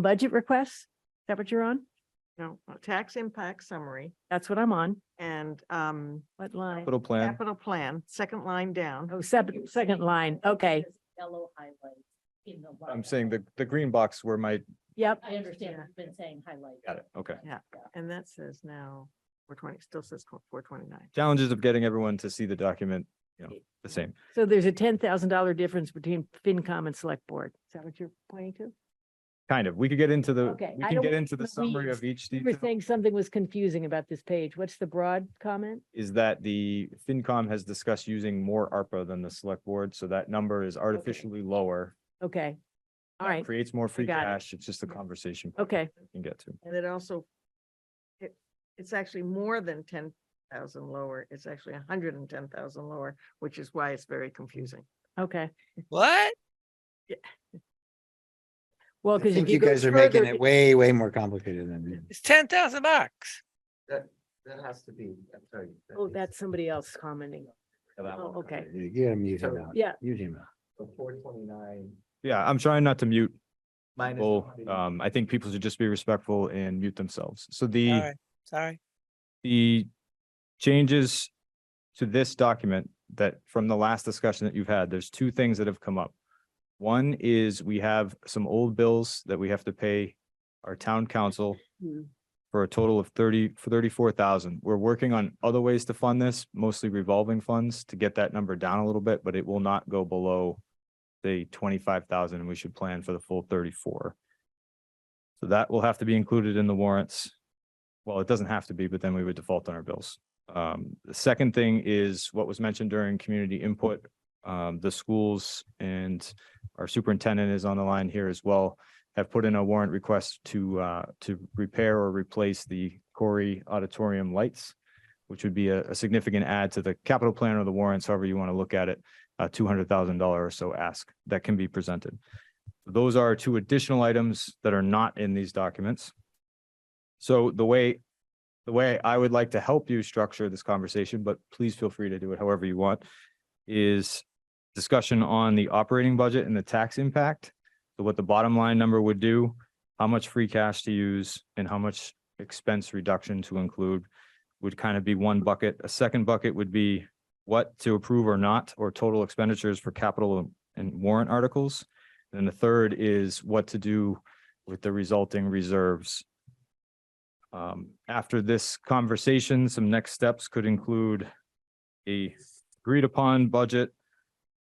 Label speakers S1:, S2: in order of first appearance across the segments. S1: budget requests? Is that what you're on?
S2: No, uh, tax impact summary
S1: That's what I'm on.
S2: and um
S1: What line?
S3: Capital plan.
S2: capital plan, second line down.
S1: Oh, second, second line. Okay,
S4: Yellow highlights in the.
S3: I'm
S4: lineup.
S3: saying the, the green box where my,
S1: yep.
S4: I understand, we've been saying highlight.
S3: got it, okay.
S2: And that says now four twenty, still says four twenty-nine.
S3: Challenges of getting everyone to see the document, you know, the same.
S1: So there's a ten thousand dollar difference between FinCom and Select Board. Is that what you're pointing to?
S3: Kind of. We could get into the,
S1: Okay,
S3: we
S1: I
S3: can
S1: don't
S3: get into the
S1: wanna
S3: summary
S1: leave.
S3: of each
S1: You were
S3: detail.
S1: saying something was confusing about this page. What's the broad comment?
S3: Is that the FinCom has discussed using more ARPA than the select board, so that number is artificially lower.
S1: Okay. All right,
S3: Creates more free
S1: got it.
S3: cash. It's just a conversation. point
S1: okay,
S3: we Can get to.
S2: And it also it it's actually more than ten thousand lower. It's actually hundred and ten thousand lower, which is why it's very confusing.
S1: okay.
S5: What?
S1: Well,
S6: I
S1: because
S6: think
S1: if you
S6: you
S1: go
S6: guys are making
S1: further,
S6: it way, way more complicated than. it is.
S5: It's ten thousand bucks.
S7: That has to be, I'm sorry. that
S1: oh,
S7: is
S1: that's somebody else commenting. Oh, okay.
S6: You gotta mute him
S7: So-
S6: out.
S1: Yeah.
S6: Mute him out.
S7: So four twenty-nine
S3: Yeah, I'm trying not to mute
S7: minus.
S3: people.
S7: 100.
S3: Um, I think people should just be respectful and mute themselves. So the.
S5: All right, sorry.
S3: the changes to this document that from the last discussion that you've had, there's two things that have come up. One is we have some old bills that we have to pay our town council
S1: Hmm.
S3: for a total of thirty, thirty-four thousand. We're working on other ways to fund this, mostly revolving funds to get that number down a little bit, but it will not go below the twenty-five thousand and we should plan for the full thirty-four. So that will have to be included in the warrants. Well, it doesn't have to be, but then we would default on our bills. Um, the second thing is what was mentioned during community input. Um, the schools and our superintendent is on the line here as well. Have put in a warrant request to uh, to repair or replace the Corey Auditorium lights. Which would be a, a significant add to the capital plan or the warrants, however you want to look at it. A two hundred thousand dollar or so ask that can be presented. Those are two additional items that are not in these documents. So the way, the way I would like to help you structure this conversation, but please feel free to do it however you want, is discussion on the operating budget and the tax impact. So what the bottom line number would do, how much free cash to use and how much expense reduction to include would kind of be one bucket. A second bucket would be what to approve or not, or total expenditures for capital and warrant articles. And the third is what to do with the resulting reserves um, after this conversation, some next steps could include a agreed upon budget,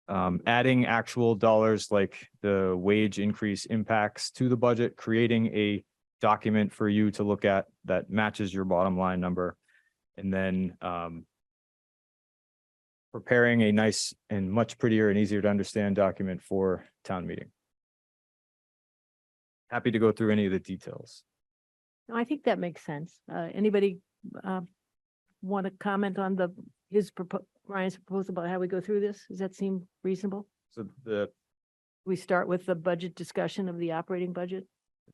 S3: um, adding actual dollars like the wage increase impacts to the budget, creating a document for you to look at that matches your bottom line number. And then, um, preparing a nice and much prettier and easier to understand document for town meeting. Happy to go through any of the details.
S1: No, I think that makes sense. Uh, anybody, uh, want to comment on the, his propo- Ryan's proposal about how we go through this? Does that seem reasonable?
S3: So the
S1: We start with the budget discussion of the operating budget?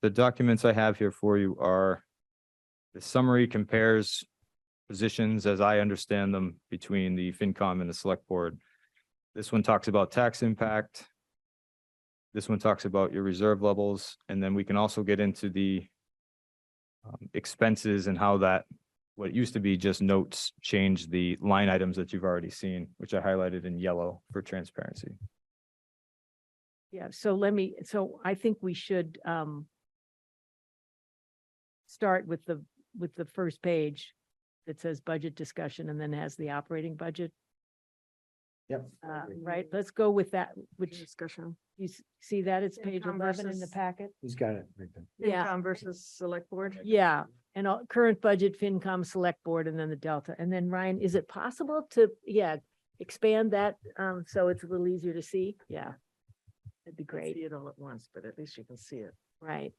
S3: the documents I have here for you are the summary compares positions as I understand them between the FinCom and the Select Board. This one talks about tax impact. This one talks about your reserve levels, and then we can also get into the um, expenses and how that, what used to be just notes, change the line items that you've already seen, which I highlighted in yellow for transparency.
S1: Yeah, so let me, so I think we should, um, start with the, with the first page that says budget discussion and then has the operating budget,
S7: Yep.
S1: uh,
S7: agree.
S1: right? Let's go with that, which
S2: Discussion.
S1: you s- see that it's page
S2: Income
S1: eleven in the
S2: versus-
S1: packet?
S6: He's got it. right there.
S1: Yeah.
S2: FinCom versus select board.
S1: Yeah, and all, current budget, FinCom, Select Board, and then the Delta. And then Ryan, is it possible to, yeah, expand that, um, so it's a little easier to see? Yeah. That'd be
S2: Can't See
S1: great,
S2: it all at once, but at least you can see it.
S1: right?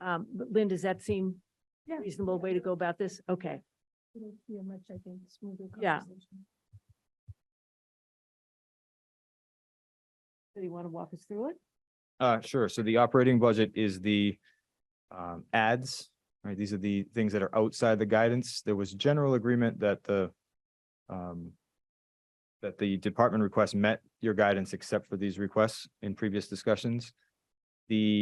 S1: Um, but Lynn, does that seem reasonable way to go about this? Okay,
S4: It'll be a much, I think, smoother
S1: Yeah. so you want to walk us through it?
S3: Uh, sure. So the operating budget is the um, ads, right? These are the things that are outside the guidance. There was general agreement that the um, that the department requests met your guidance except for these requests in previous discussions. the